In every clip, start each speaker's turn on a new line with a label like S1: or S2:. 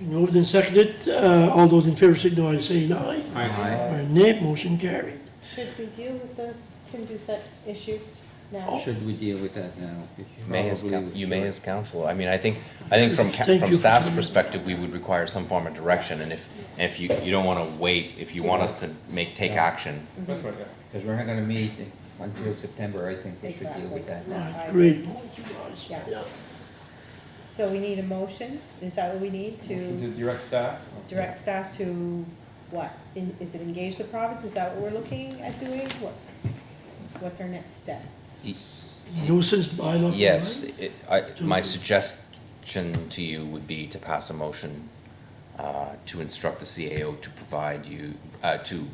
S1: Moved and seconded, uh, all those in favor signify by saying aye.
S2: Aye.
S1: By nay, motion carried.
S3: Should we deal with the Tim Doucette issue now?
S4: Oh.
S2: Should we deal with that now?
S5: You May as, coun-
S2: Probably
S5: you may
S2: should.
S5: as council, I mean, I think, I think from, ca-
S1: Thank
S5: from
S1: you.
S5: staff's perspective, we would require some form of direction, and if, and if you, you don't wanna wait, if you want us to make, take action,
S4: That's right, yeah.
S2: Because we're not gonna meet until September, I think we should deal with that.
S3: Exactly.
S1: Right, Great point, you guys.
S3: Yeah. So we need a motion, is that what we need
S4: Motion
S3: to
S4: To direct staff?
S3: direct staff to what? In- Is it engage the province, is that what we're looking at doing? What? What's our next step?
S1: Nuisance bylaw.
S5: yes,
S1: right?
S5: it, I, my suggestion to you would be to pass a motion uh, to instruct the CAO to provide you, uh, to,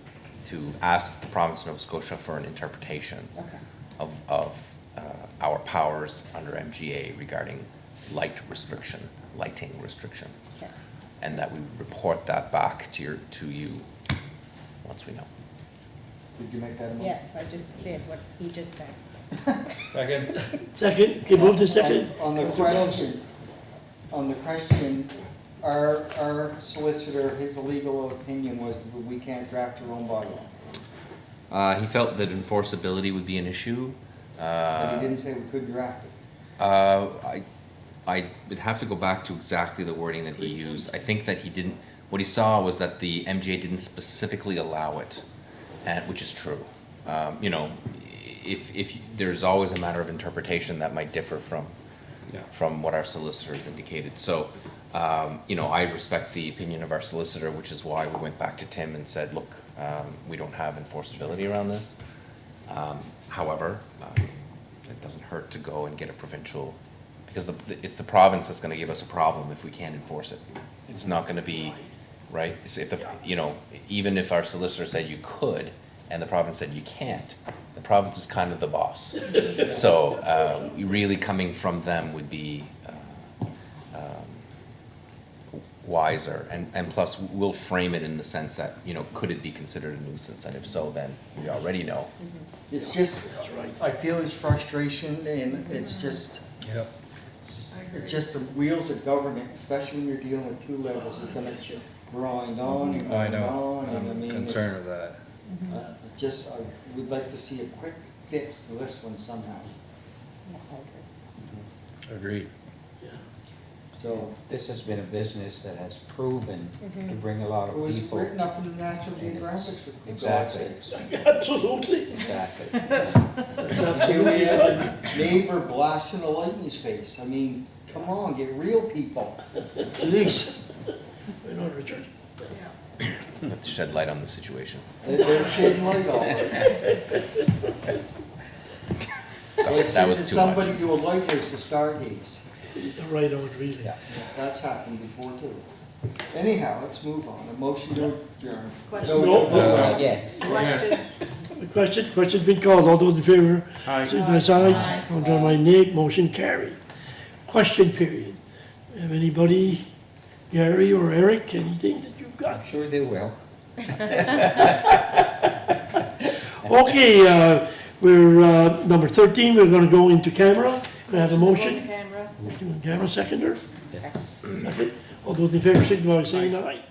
S5: to ask the province of Nova Scotia for an interpretation
S3: Okay,
S5: of, of, uh, our powers under MGA regarding light restriction, lighting restriction.
S3: okay.
S5: and that we report that back to your, to you, once we know.
S6: Did you make that a motion?
S3: Yes, I just did what he just said.
S4: Second,
S1: Second, okay, moved and seconded.
S6: On the question, on the question, our, our solicitor, his legal opinion was that we can't draft our own bylaw.
S5: Uh, he felt that enforceability would be an issue.
S6: But
S7: Ah.
S6: he
S5: Uh,
S6: didn't say we could draft it.
S5: uh, I, I would have to go back to exactly the wording that he used. I think that he didn't, what he saw was that the MGA didn't specifically allow it, and, which is true. Um, you know, if, if, there's always a matter of interpretation that might differ from,
S4: yeah.
S5: from what our solicitors indicated. So, um, you know, I respect the opinion of our solicitor, which is why we went back to Tim and said, look, um, we don't have enforceability around this. Um, however, um, it doesn't hurt to go and get a provincial, because the, it's the province that's gonna give us a problem if we can't enforce it. It's not gonna be, right? So if the, you know, even if our solicitor said you could, and the province said you can't, the province is kind of the boss. So, uh, really coming from them would be, uh, um, wiser, and, and plus, we'll frame it in the sense that, you know, could it be considered a nuisance, and if so, then we already know.
S6: It's just, I feel his frustration and it's just, it's just the wheels of government, especially when you're dealing with two levels, it's gonna grind on and
S7: Oh, I
S6: on and
S7: know,
S6: on. and I
S7: I'm
S6: mean, it's-
S7: concerned with that.
S6: uh, Just, I would like to see a quick fix to this one somehow,
S3: Yeah, I agree.
S7: Agreed.
S6: so.
S2: This has been a business that has proven to
S3: Mhm.
S2: bring a lot
S6: It
S2: of
S6: was
S2: people.
S6: written up in the National Geographic for God's
S2: Exactly.
S6: sakes.
S1: Absolutely.
S2: Exactly.
S1: That's
S6: Here we
S1: absolutely right.
S6: had the neighbor blasting a light in his face, I mean, come on, get real people, jeez.
S1: We're not returned.
S5: We have to shed light on the situation.
S6: They- They're shedding light on it.
S5: Sorry,
S6: Like
S5: That was too much.
S6: Somebody do a light race to Stargaze,
S1: Right on, really.
S2: Yeah.
S6: that's happened before too. Anyhow, let's move on, a motion to adjourn.
S8: Question.
S6: No, no, no.
S5: Uh,
S2: Not yet.
S8: Question,
S1: The question, question's been called, all those in favor,
S4: Aye.
S1: signify by aye. Contrary by nay, motion carried. Question period. Have anybody, Gary or Eric, anything that you've got?
S2: I'm sure they will.
S1: Okay, uh, we're, uh, number 13, we're gonna go into camera. Can I have a
S8: on the
S1: motion?
S8: camera.
S1: Camera seconder? Second. All those in favor signify by saying aye.